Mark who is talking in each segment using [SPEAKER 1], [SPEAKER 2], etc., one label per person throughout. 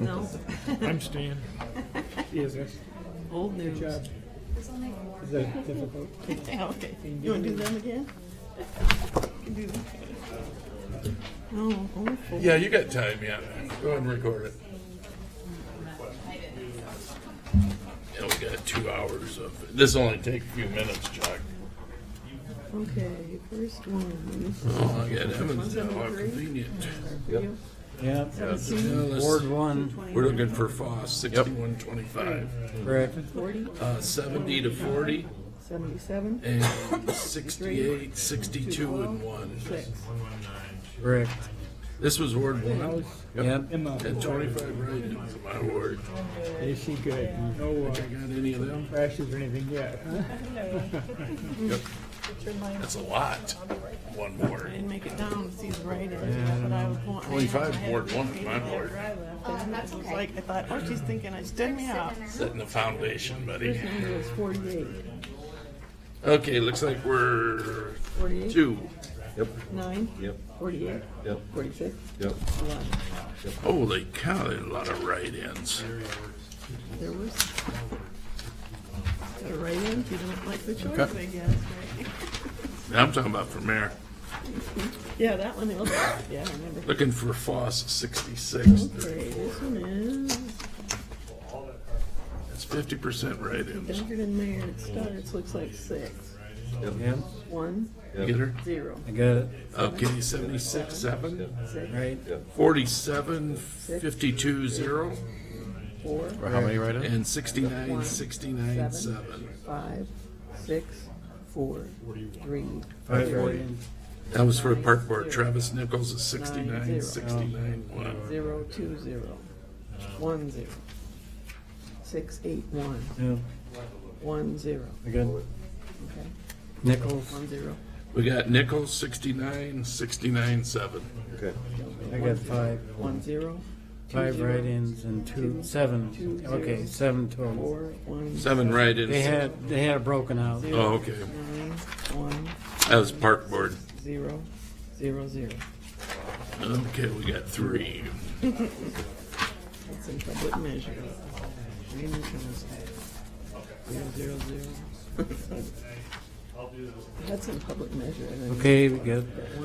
[SPEAKER 1] No,
[SPEAKER 2] I'm Stan.
[SPEAKER 3] Is this,
[SPEAKER 1] old news.
[SPEAKER 3] job. is that difficult?
[SPEAKER 1] Okay, you wanna do them again? Can do them. Oh, awful.
[SPEAKER 2] Yeah, you got time, yeah. Go ahead and record it. Yeah, we got two hours of, this will only take a few minutes, Chuck.
[SPEAKER 1] Okay, first one.
[SPEAKER 2] Oh, I got Evans
[SPEAKER 1] One's
[SPEAKER 2] now,
[SPEAKER 1] on
[SPEAKER 2] how
[SPEAKER 1] the green.
[SPEAKER 2] convenient.
[SPEAKER 3] Yeah,
[SPEAKER 2] Yeah, let's-
[SPEAKER 3] Ward one,
[SPEAKER 2] We're looking for Foss, sixty-one twenty-five,
[SPEAKER 3] correct.
[SPEAKER 1] Forty,
[SPEAKER 2] uh, seventy to forty,
[SPEAKER 1] seventy-seven,
[SPEAKER 2] and sixty-eight, sixty-two and one.
[SPEAKER 1] six.
[SPEAKER 3] Correct.
[SPEAKER 2] This was Ward one,
[SPEAKER 3] Yep.
[SPEAKER 2] and twenty-five right now is my ward.
[SPEAKER 3] Is she good? No uh,
[SPEAKER 2] I got any of them?
[SPEAKER 3] crashes or anything yet, huh?
[SPEAKER 2] That's a lot, one
[SPEAKER 1] I
[SPEAKER 2] ward.
[SPEAKER 1] didn't make it down to see the writing, but I was going. I
[SPEAKER 2] Twenty-five
[SPEAKER 1] had-
[SPEAKER 2] board one,
[SPEAKER 1] I
[SPEAKER 2] my
[SPEAKER 1] had
[SPEAKER 2] board.
[SPEAKER 1] I left,
[SPEAKER 4] Oh,
[SPEAKER 1] and
[SPEAKER 4] that's
[SPEAKER 1] It was
[SPEAKER 4] okay.
[SPEAKER 1] like, I thought, oh, she's thinking I stood me up.
[SPEAKER 2] Setting the foundation, buddy.
[SPEAKER 1] It was forty-eight,
[SPEAKER 2] Okay, looks like we're
[SPEAKER 1] forty-eight,
[SPEAKER 2] two.
[SPEAKER 5] Yep,
[SPEAKER 1] nine,
[SPEAKER 5] yep,
[SPEAKER 1] forty-eight,
[SPEAKER 5] yep,
[SPEAKER 1] forty-six,
[SPEAKER 5] yep.
[SPEAKER 1] eleven.
[SPEAKER 2] Holy cow, there's a lot of write-ins.
[SPEAKER 1] There was. The write-ins, you don't like the choice, I guess, right?
[SPEAKER 2] I'm talking about for mayor.
[SPEAKER 1] Yeah, that one, they look, yeah, I remember.
[SPEAKER 2] Looking for Foss sixty-six.
[SPEAKER 1] Okay, this one is
[SPEAKER 2] That's fifty percent write-ins.
[SPEAKER 1] Dunkard and Mayor, it starts, looks like six.
[SPEAKER 3] Yeah,
[SPEAKER 1] One,
[SPEAKER 2] Get her?
[SPEAKER 1] zero,
[SPEAKER 3] I got it,
[SPEAKER 2] Okay, seventy-six, seven.
[SPEAKER 1] six,
[SPEAKER 3] right?
[SPEAKER 2] Forty-seven, fifty-two, zero.
[SPEAKER 1] four,
[SPEAKER 6] How many write-ins?
[SPEAKER 2] And sixty-nine, sixty-nine, seven.
[SPEAKER 1] five, six, four, three,
[SPEAKER 3] Five write-ins.
[SPEAKER 2] That was for park board. Travis Nichols is sixty-nine, sixty-nine, one.
[SPEAKER 1] zero, two, zero, one, zero, six, eight, one,
[SPEAKER 3] Yeah,
[SPEAKER 1] one, zero,
[SPEAKER 3] I got
[SPEAKER 1] okay,
[SPEAKER 3] Nichols,
[SPEAKER 1] one, zero.
[SPEAKER 2] We got Nichols sixty-nine, sixty-nine, seven.
[SPEAKER 5] Okay,
[SPEAKER 3] I got five,
[SPEAKER 1] One, zero,
[SPEAKER 3] five write-ins and two, seven, okay, seven total.
[SPEAKER 1] four, one,
[SPEAKER 2] Seven write-ins.
[SPEAKER 3] They had, they had it broken out.
[SPEAKER 2] Oh, okay.
[SPEAKER 1] nine, one,
[SPEAKER 2] That was park board.
[SPEAKER 1] zero, zero, zero.
[SPEAKER 2] Okay, we got three.
[SPEAKER 1] That's in public measure. Raymond Jones. Zero, zero, zero. That's in public measure. and then
[SPEAKER 3] Okay, we got,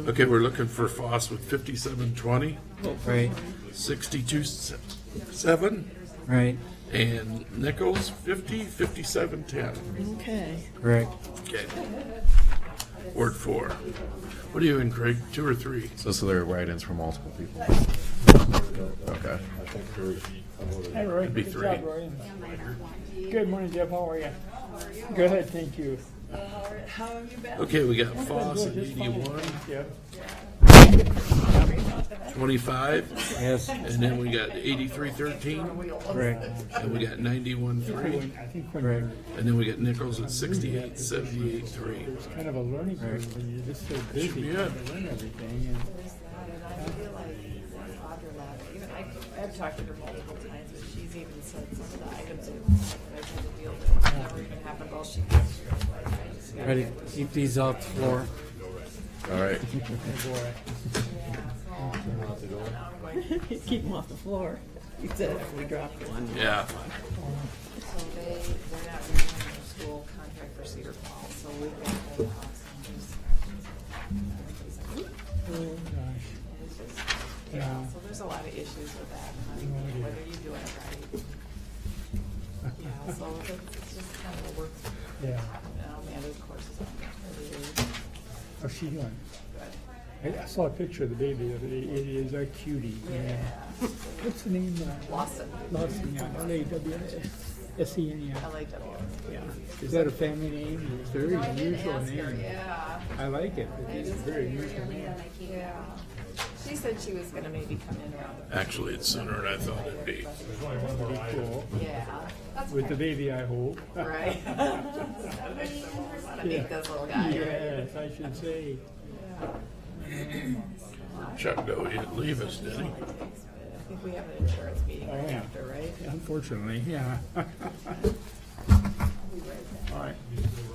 [SPEAKER 2] Okay, we're looking for Foss with fifty-seven twenty,
[SPEAKER 3] right,
[SPEAKER 2] sixty-two se- seven,
[SPEAKER 3] right,
[SPEAKER 2] and Nichols fifty, fifty-seven ten.
[SPEAKER 1] Okay,
[SPEAKER 3] correct.
[SPEAKER 2] Okay. Ward four. What are you in, Craig? Two or three?
[SPEAKER 6] So, so there are write-ins from multiple people. Okay.
[SPEAKER 7] Hi, Roy.
[SPEAKER 2] be
[SPEAKER 7] Good
[SPEAKER 2] three.
[SPEAKER 7] job, Roy. Good morning, Jeff. How are you? Good, thank you.
[SPEAKER 2] Okay, we got Foss at eighty-one,
[SPEAKER 7] Jeff,
[SPEAKER 2] twenty-five,
[SPEAKER 3] Yes,
[SPEAKER 2] and then we got eighty-three thirteen,
[SPEAKER 3] correct,
[SPEAKER 2] and we got ninety-one three,
[SPEAKER 7] I think when
[SPEAKER 3] correct.
[SPEAKER 2] and then we got Nichols at sixty-eight, seventy-eight three.
[SPEAKER 7] it's kind of a learning curve, when you're just so busy,
[SPEAKER 2] be
[SPEAKER 7] you
[SPEAKER 2] it.
[SPEAKER 7] learn everything, and
[SPEAKER 8] Even I, I've talked to her multiple times, but she's even said some of the items that I tried to deal with never even happened while she was here. I just got-
[SPEAKER 3] Ready, keep these off the floor.
[SPEAKER 6] All right.
[SPEAKER 1] keep them off the floor. He said if we dropped one.
[SPEAKER 2] Yeah,
[SPEAKER 8] So they, they're not renewing their school contract for Cedar Falls, so we got that. Yeah, so there's a lot of issues with that, like, whether you do it right. Yeah, so it's just kind of a work,
[SPEAKER 7] yeah,
[SPEAKER 8] um, and of course, it's on
[SPEAKER 7] how's she doing? I I saw a picture of the baby the other day, it is a cutie, yeah. What's the name? uh,
[SPEAKER 8] Lawson,
[SPEAKER 7] Lawson, yeah, L A W S, S E N, yeah.
[SPEAKER 8] LAW.
[SPEAKER 7] Is that a family name? It's a very unusual name.
[SPEAKER 8] Yeah,
[SPEAKER 7] I like it, but it's a very unusual name.
[SPEAKER 8] yeah. She said she was gonna maybe come in around
[SPEAKER 2] actually, it's sooner than I thought it'd be.
[SPEAKER 7] Pretty cool,
[SPEAKER 8] the, yeah, that's
[SPEAKER 7] with the baby, I hope.
[SPEAKER 8] right. Wanna meet this little guy, right?
[SPEAKER 7] Yes, I should say.
[SPEAKER 2] Chuck, though, he didn't leave us, did he?
[SPEAKER 8] I think we have an insurance meeting
[SPEAKER 7] Oh,
[SPEAKER 8] right
[SPEAKER 7] yeah.
[SPEAKER 8] after, right?
[SPEAKER 7] Unfortunately, yeah. All right.